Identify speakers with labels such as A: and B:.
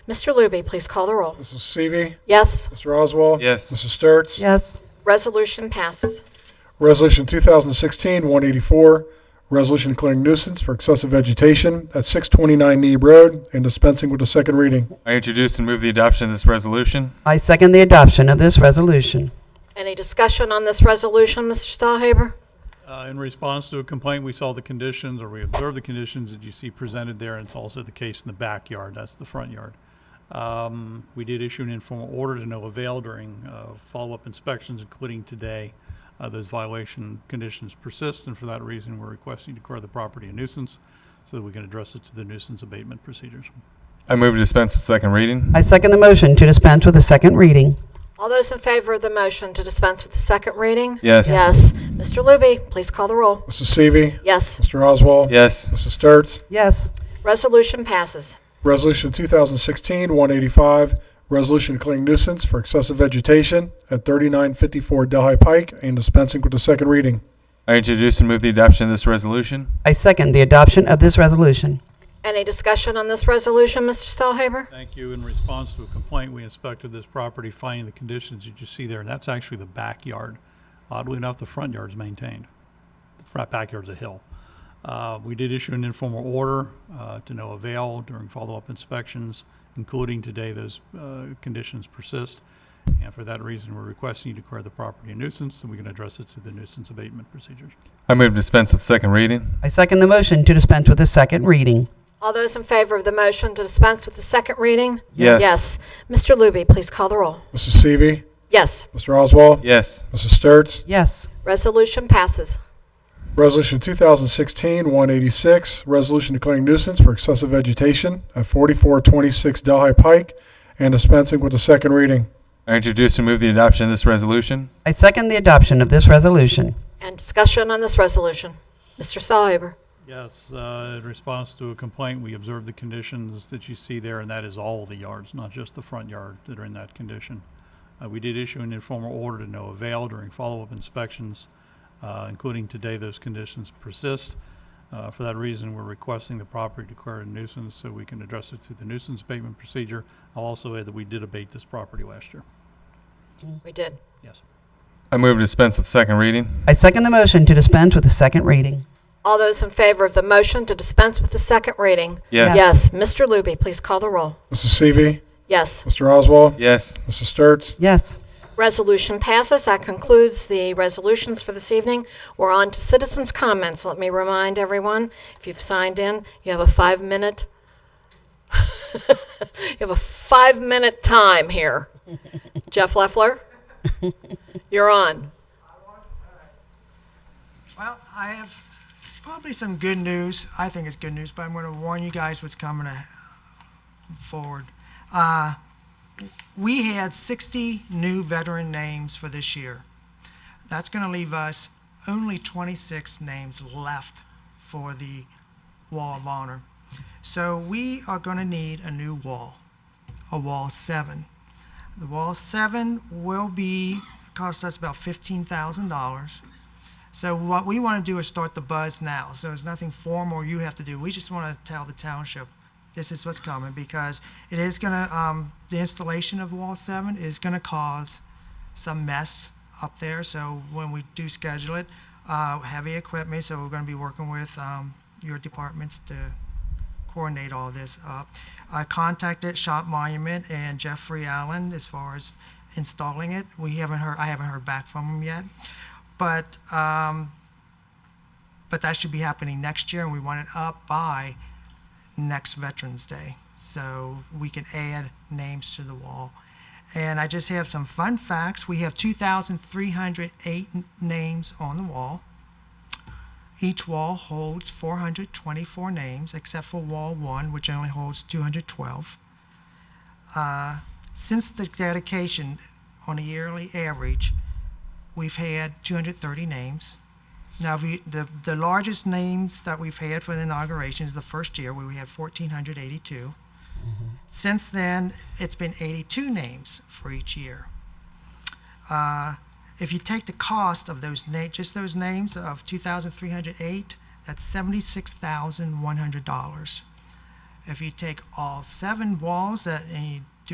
A: Mr. Looby, please call the roll.
B: Mrs. Seavey.
A: Yes,
B: Mr. Oswald.
C: Yes.
B: Mrs. Sturts.
D: yes,
A: resolution passes.
B: Resolution 2016-184, resolution declaring nuisance for excessive vegetation at 629 Neeb Road and dispensing with the second reading.
C: I introduce and move the adoption of this resolution.
D: I second the adoption of this resolution.
A: Any discussion on this resolution, Mr. Stahlhaber?
E: Uh, In response to a complaint, we saw the conditions, or we observed the conditions that you see presented there, and it's also the case in the backyard, that's the front yard. Um, We did issue an informal order to no avail during uh, follow-up inspections, including today. Uh, Those violation conditions persist, and for that reason, we're requesting to declare the property a nuisance so that we can address it to the nuisance abatement procedures.
C: I move to dispense with second reading.
D: I second the motion to dispense with a second reading.
A: All those in favor of the motion to dispense with the second reading?
C: Yes.
A: Yes. Mr. Looby, please call the roll.
B: Mrs. Seavey.
A: Yes,
B: Mr. Oswald.
C: Yes.
B: Mrs. Sturts.
D: Yes,
A: resolution passes.
B: Resolution 2016-185, resolution declaring nuisance for excessive vegetation at 3954 Delhi Pike and dispensing with the second reading.
C: I introduce and move the adoption of this resolution.
D: I second the adoption of this resolution.
A: Any discussion on this resolution, Mr. Stahlhaber?
E: Thank you. In response to a complaint, we inspected this property, finding the conditions that you see there, and that's actually the backyard. Oddly enough, the front yard's maintained. The front backyard's a hill. Uh, We did issue an informal order uh, to no avail during follow-up inspections, including today, those uh, conditions persist. And for that reason, we're requesting you declare the property a nuisance, and we can address it through the nuisance abatement procedures.
C: I move to dispense with second reading.
D: I second the motion to dispense with a second reading.
A: All those in favor of the motion to dispense with the second reading?
C: Yes.
A: Yes. Mr. Looby, please call the roll.
B: Mrs. Seavey.
A: Yes,
B: Mr. Oswald.
C: Yes.
B: Mrs. Sturts.
D: Yes,
A: resolution passes.
B: Resolution 2016-186, resolution declaring nuisance for excessive vegetation at 4426 Delhi Pike and dispensing with the second reading.
C: I introduce and move the adoption of this resolution.
D: I second the adoption of this resolution.
A: And discussion on this resolution, Mr. Stahlhaber?
E: Yes, uh, in response to a complaint, we observed the conditions that you see there, and that is all the yards, not just the front yard that are in that condition. Uh, We did issue an informal order to no avail during follow-up inspections, uh, including today, those conditions persist. Uh, For that reason, we're requesting the property declared a nuisance so we can address it through the nuisance abatement procedure. I'll also add that we did abate this property last year.
A: We did.
E: Yes.
C: I move to dispense with second reading.
D: I second the motion to dispense with a second reading.
A: All those in favor of the motion to dispense with the second reading?
C: Yes.
A: Yes. Mr. Looby, please call the roll.
B: Mrs. Seavey.
A: Yes.
B: Mr. Oswald.
C: Yes.
B: Mrs. Sturts.
D: Yes,
A: Resolution passes. That concludes the resolutions for this evening. We're on to citizens' comments. Let me remind everyone, if you've signed in, you have a five-minute, you have a five-minute time here. Jeff Leffler, you're on.
F: Well, I have probably some good news. I think it's good news, but I'm going to warn you guys what's coming a- forward. Uh, we had 60 new veteran names for this year. That's going to leave us only 26 names left for the Wall of Honor. So we are going to need a new wall, a Wall 7. The Wall 7 will be, cost us about $15,000. So what we want to do is start the buzz now. So it's nothing formal you have to do. We just want to tell the township this is what's coming because it is going to, um, the installation of Wall 7 is going to cause some mess up there. So when we do schedule it, uh, heavy equipment, so we're going to be working with um, your departments to coordinate all this up. I contacted Shop Monument and Jeffrey Allen as far as installing it. We haven't heard, I haven't heard back from them yet. But, um, but that should be happening next year and we want it up by next Veterans Day. So we can add names to the wall. And I just have some fun facts. We have 2,308 n- names on the wall. Each wall holds 424 names, except for Wall 1, which only holds 212. Uh, Since the dedication, on a yearly average, we've had 230 names. Now, we, the, the largest names that we've had for the inauguration is the first year, where we had 1,482. Since then, it's been 82 names for each year. Uh, If you take the cost of those na, just those names of 2,308, that's $76,100. If you take all seven walls that, and you